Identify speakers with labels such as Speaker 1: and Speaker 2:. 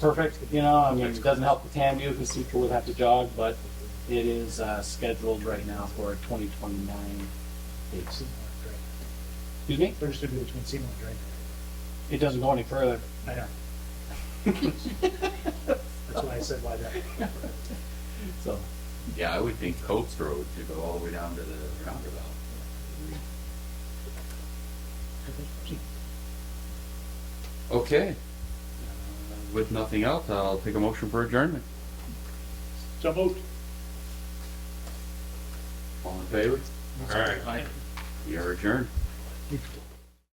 Speaker 1: perfect, you know, I mean, it doesn't help the TAMU because people would have to jog, but it is uh, scheduled right now for a 2029 date. Excuse me?
Speaker 2: There's to be between Seymour and Drake.
Speaker 1: It doesn't go any further.
Speaker 2: I know. That's why I said why that.
Speaker 1: So,
Speaker 3: Yeah, I would think Coates Road to go all the way down to the roundabout. Okay. With nothing else, I'll take a motion for adjournment.
Speaker 2: So moved.
Speaker 3: All in favor? All right. We are adjourned.